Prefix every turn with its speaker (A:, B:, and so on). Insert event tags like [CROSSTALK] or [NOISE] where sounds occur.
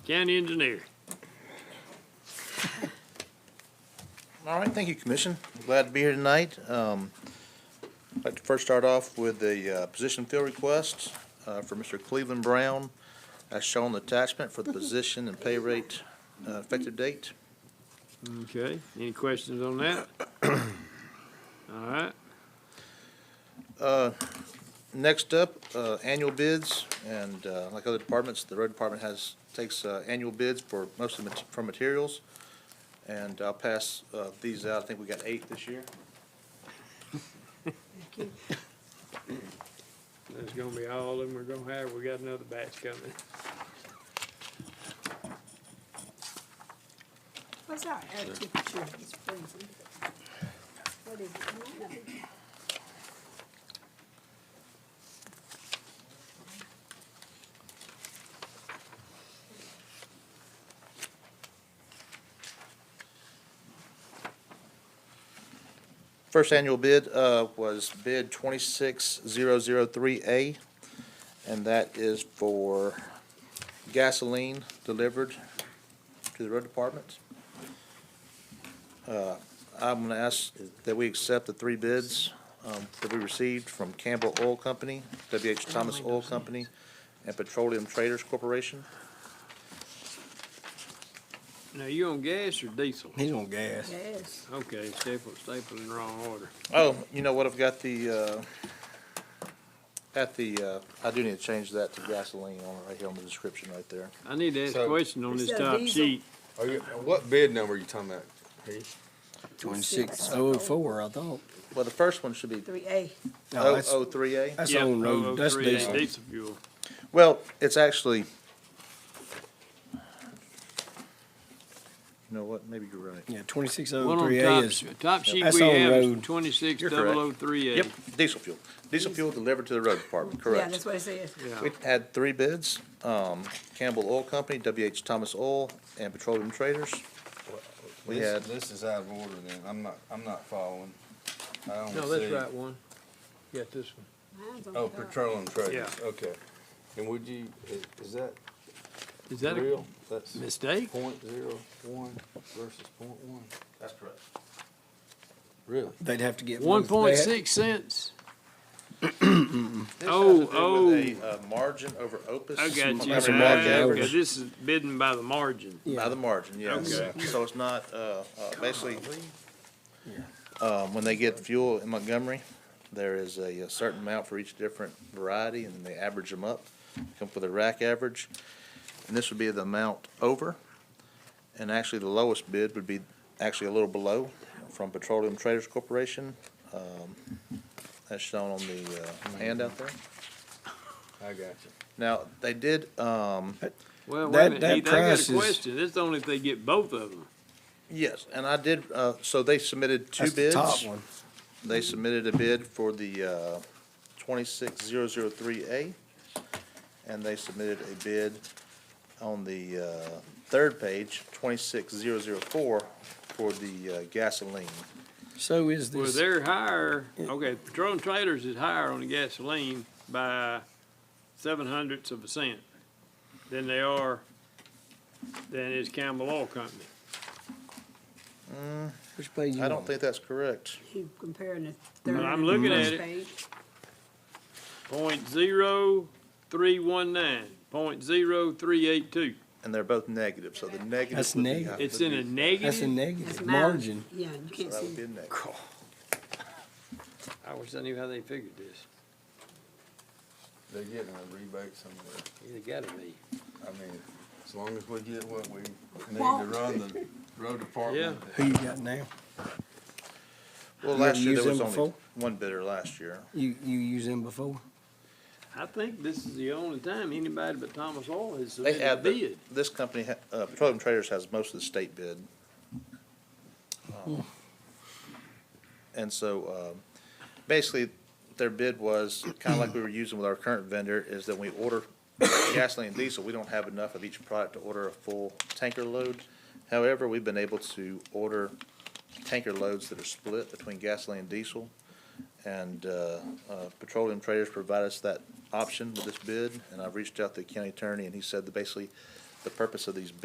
A: County engineer.
B: All right, thank you, Commission. Glad to be here tonight. Um, I'd like to first start off with the uh, position fill request uh, for Mr. Cleveland Brown, as shown in the attachment for the position and pay rate uh, effective date.
A: Okay, any questions on [CLEARS THROAT] that? All right,
B: Uh, Next up, uh, annual bids, and uh, like other departments, the road department has, takes uh, annual bids for mostly mat- for materials. And I'll pass uh, these out. I think we got eight this year.
A: that's gonna be all of them we're gonna have, we got another batch coming.
C: What's our air temperature? It's freezing. What is it?
B: First annual bid uh, was bid 26003A, and that is for gasoline delivered to the road department. Uh, I'm going to ask that we accept the three bids um, that we received from Campbell Oil Company, WH Thomas Oil Company, and Petroleum Traders Corporation.
A: Now, you on gas or diesel?
D: He's on gas.
C: Yes.
A: Okay, staple, staple in the wrong order.
B: Oh, you know what, I've got the, uh, at the, uh, I do need to change that to gasoline on it right here on the description right there.
A: I need to ask a
E: So-
A: question on this
C: It said
A: top
C: diesel.
A: sheet.
E: Are you, what bid number are you talking about?
D: Twenty-six oh four, I thought.
B: Well, the first one should be
C: Three A.
D: No,
B: O
D: that's,
B: O three A.
D: that's
A: Yeah, oh,
D: on road, that's
A: 003A
D: diesel.
A: Diesel fuel.
B: Well, it's actually, you know what, maybe you're right.
D: Yeah, twenty-six
A: One
D: oh
A: on
D: three A
A: top,
D: is,
A: top sheet
D: that's
A: we
D: on
A: have is
D: road.
A: twenty-six
B: You're correct.
A: double oh three A.
B: Yep, diesel fuel. Diesel fuel delivered to the road department,
C: Yeah,
B: correct.
C: that's what it says.
A: Yeah,
B: We had three bids, um, Campbell Oil Company, WH Thomas Oil, and Petroleum Traders. We
E: This-
B: had-
E: This is out of order then, I'm not, I'm not following. I don't
A: no, that's
E: see-
A: right one. Got this one.
C: Mine's on
E: Oh,
C: top.
E: petroleum traders,
A: Yeah.
E: okay. And would you, i- is that
A: Is that a
E: real? That's
A: mistake?
E: point zero one versus point one?
B: That's correct.
E: Really?
D: they'd have to get.
A: One
D: both. They
A: point
D: had-
A: six cents?
B: This
A: Oh,
B: has to do with a, uh, margin over opus.
A: I got you.
B: Remember margin
D: Margin
A: Okay,
D: average.
B: over-
A: this is bidding by the margin.
B: By the margin, yes.
A: Okay.
B: So it's not, uh, uh, basically, um, when they get fuel in Montgomery, there is a a certain amount for each different variety, and then they average them up, come for the rack average. And this would be the amount over, and actually, the lowest bid would be actually a little below from Petroleum Traders Corporation. um, That's shown on the uh, handout there.
E: I got
B: Now, they did, um,
A: Well, wait a
D: That-
A: minute,
D: that
A: Heath, I got
D: price
A: a
D: is-
A: question, that's only if they get both of them.
B: Yes, and I did, uh, so they submitted two
D: That's the
B: bids.
D: top one.
B: They submitted a bid for the, uh, twenty-six zero zero three A, and they submitted a bid on the, uh, third page, twenty-six zero zero four, for the uh, gasoline.
D: So is
A: Well,
D: this,
A: they're higher, okay, petroleum traders is higher on the gasoline by seven hundredths of a cent than they are, than is Campbell Oil Company.
D: which page you
B: I don't
D: on?
B: think that's correct.
C: You comparing the
A: Well,
C: third.
A: I'm
C: and the
A: looking
C: first
A: at it.
C: page.
A: Point zero three one nine, point zero three eight two.
B: And they're both negative, so the negative.
D: That's
B: would be-
D: negative.
A: It's in a negative.
D: That's a
C: That's
D: negative
C: mine.
D: margin.
C: Yeah, you can't
B: That would be
C: see.
B: a negative.
A: I wish I knew how they figured this.
E: They're getting a rebate somewhere.
A: They gotta be.
E: I mean, as long as we get what we need to
C: Won't.
E: run
A: [LAUGHS]
E: the road department.
D: Who you got now?
B: Well,
D: You
B: last year
D: used
B: there was
D: them
B: only
D: before?
B: one bidder last year.
D: You, you used them before?
A: I think this is the only time anybody but Thomas Oil has
B: They
A: submitted a
B: had, the-
A: bid.
B: this company, ha- uh, Petroleum Traders has most of the state bid. Um, And so, um, basically, their bid was, kind of like we were using with our current vendor, is that we order gasoline and diesel, we don't have enough of each product to order a full tanker load. However, we've been able to order tanker loads that are split between gasoline and diesel. And uh, uh, Petroleum Traders provided us that option with this bid, and I've reached out to the county attorney, and he said that basically the purpose of these